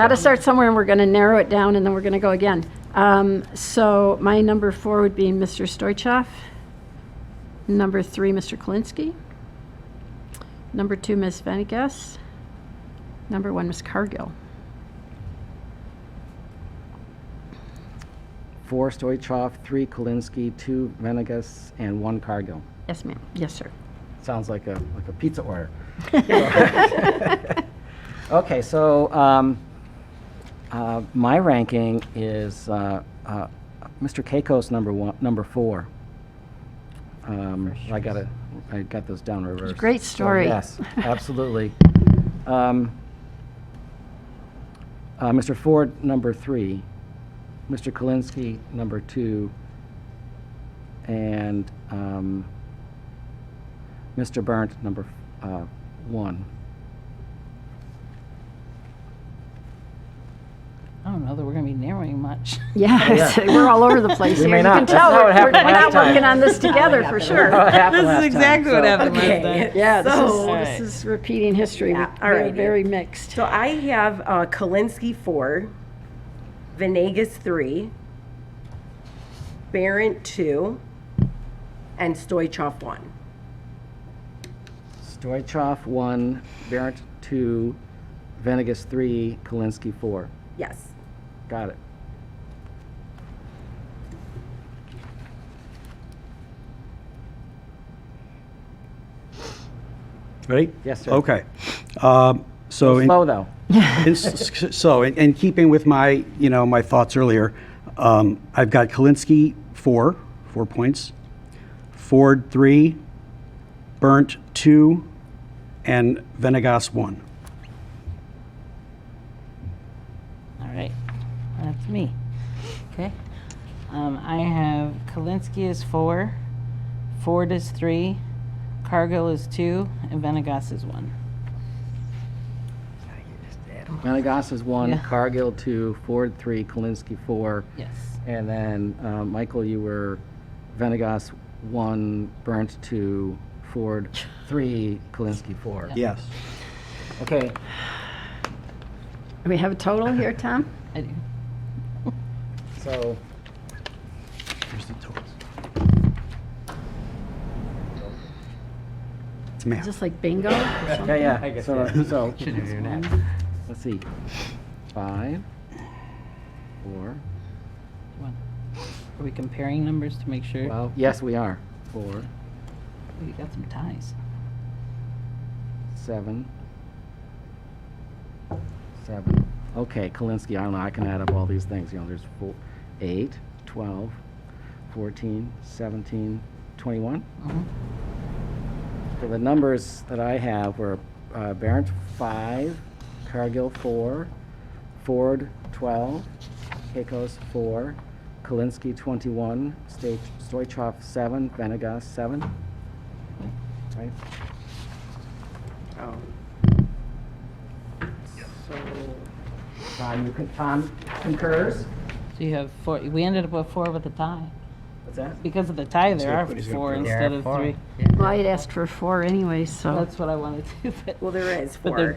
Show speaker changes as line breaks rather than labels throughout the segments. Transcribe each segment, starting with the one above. Got to start somewhere, and we're going to narrow it down, and then we're going to go again. Um, So my number four would be Mr. Stoichkov. Number three, Mr. Kalinsky. Number two, Ms. Venegas. Number one, Ms. Cargill.
Four Stoichkov, three Kolinsky, two Venegas, and one Cargill.
Yes, ma'am. Yes, sir.
Sounds like a, like a pizza order. Okay, so um, uh, my ranking is uh, uh, Mr. Keiko's number one, number four. Um, I got to I got those down reversed.
great
So,
story.
yes, absolutely. um, uh, Mr. Ford, number three. Mr. Kalinsky, number two. And um, Mr. Burnt, number uh, one.
I don't know that we're going to be narrowing much.
Yes, we're all over the place
Oh,
here.
We may
You
not.
can
That's
tell
not what
we're we're
happened
not
last time.
working on this together, for sure.
This is exactly what happened last time.
Yeah, this is,
So-
this is repeating history.
Yeah,
We're
alrighty.
Very mixed.
So I have uh, Kalinsky four, Venegas three, Barrett two, and Stoichkov one.
Stoichkov, one. Barrett, two. Venegas, three. Kalinsky, four.
Yes.
Got it.
Ready?
Yes, sir.
Okay. Um, So, in-
Slow, though.
in s- so in- in keeping with my, you know, my thoughts earlier, um, I've got Kalinsky, four, four points. Ford, three. Burnt, two. And Venegas, one.
All right, that's me. Okay. Um, I have Kalinsky is four, Ford is three, Cargill is two, and Venegas is one.
Venegas is one.
Yeah.
Cargill, two. Ford, three. Kalinsky, four.
Yes.
And then, uh, Michael, you were Venegas, one. Burnt, two. Ford, three. Kalinsky, four.
Yes.
Okay.
Do we have a total here, Tom?
I do.
So,
Here's the totals. It's math.
Is this like bingo or something?
yeah, yeah. So, so, let's see. Five, four,
One. Are we comparing numbers to make sure
well, yes, we are. Four,
we got some ties?
Seven. Seven. Okay, Kalinsky, I don't know, I can add up all these things, you know, there's four, eight, twelve, fourteen, seventeen, twenty-one. So the numbers that I have were uh, Barrent five, Cargill four, Ford twelve, Keikos four, Kalinsky twenty-one, Sta- Stoichkov seven, Venegas seven. Right?
Oh. So
Tom, you uh, con- Tom concurs?
So you have four. We ended up with four with a tie.
What's that?
Because of the tie, there are four instead of three.
Well, I had asked for four anyway, so.
That's what I wanted to. But
well, there is
But they're-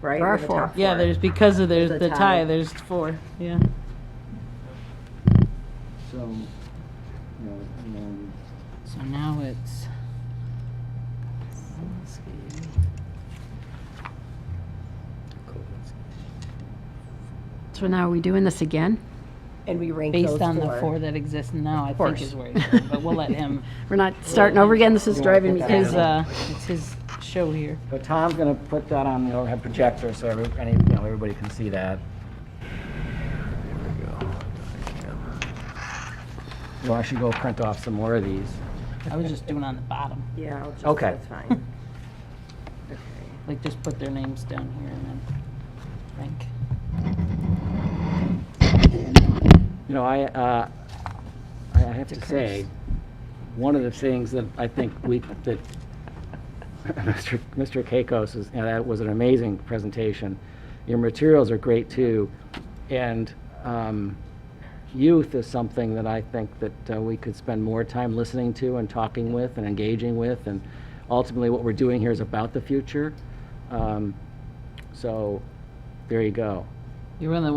four, right?
There are
We're the
four.
top
yeah, there's because of there's
The
the tie.
tie.
There's four. Yeah.
So, you know, um,
So now it's. Kalinsky.
So now are we doing this again?
And we rank those
Based on the
four.
four that exist now, I think is where he's going, but we'll let him.
We're not starting over again, this is driving me
His,
crazy.
uh, it's his show here.
so Tom's gonna put that on the overhead projector so every, any, you know, everybody can see that. Well, I should go print off some more of these.
I was just doing on the bottom,
Yeah. I'll just,
Okay.
That's fine. okay.
like just put their names down here and then rank.
You know, I, uh, I I have to say, one of the things that I think we, that Mr. Mr. Keikos is, and that was an amazing presentation. Your materials are great too, and um, youth is something that I think that uh, we could spend more time listening to and talking with and engaging with, and ultimately what we're doing here is about the future. Um, so, there you go.
You're one of the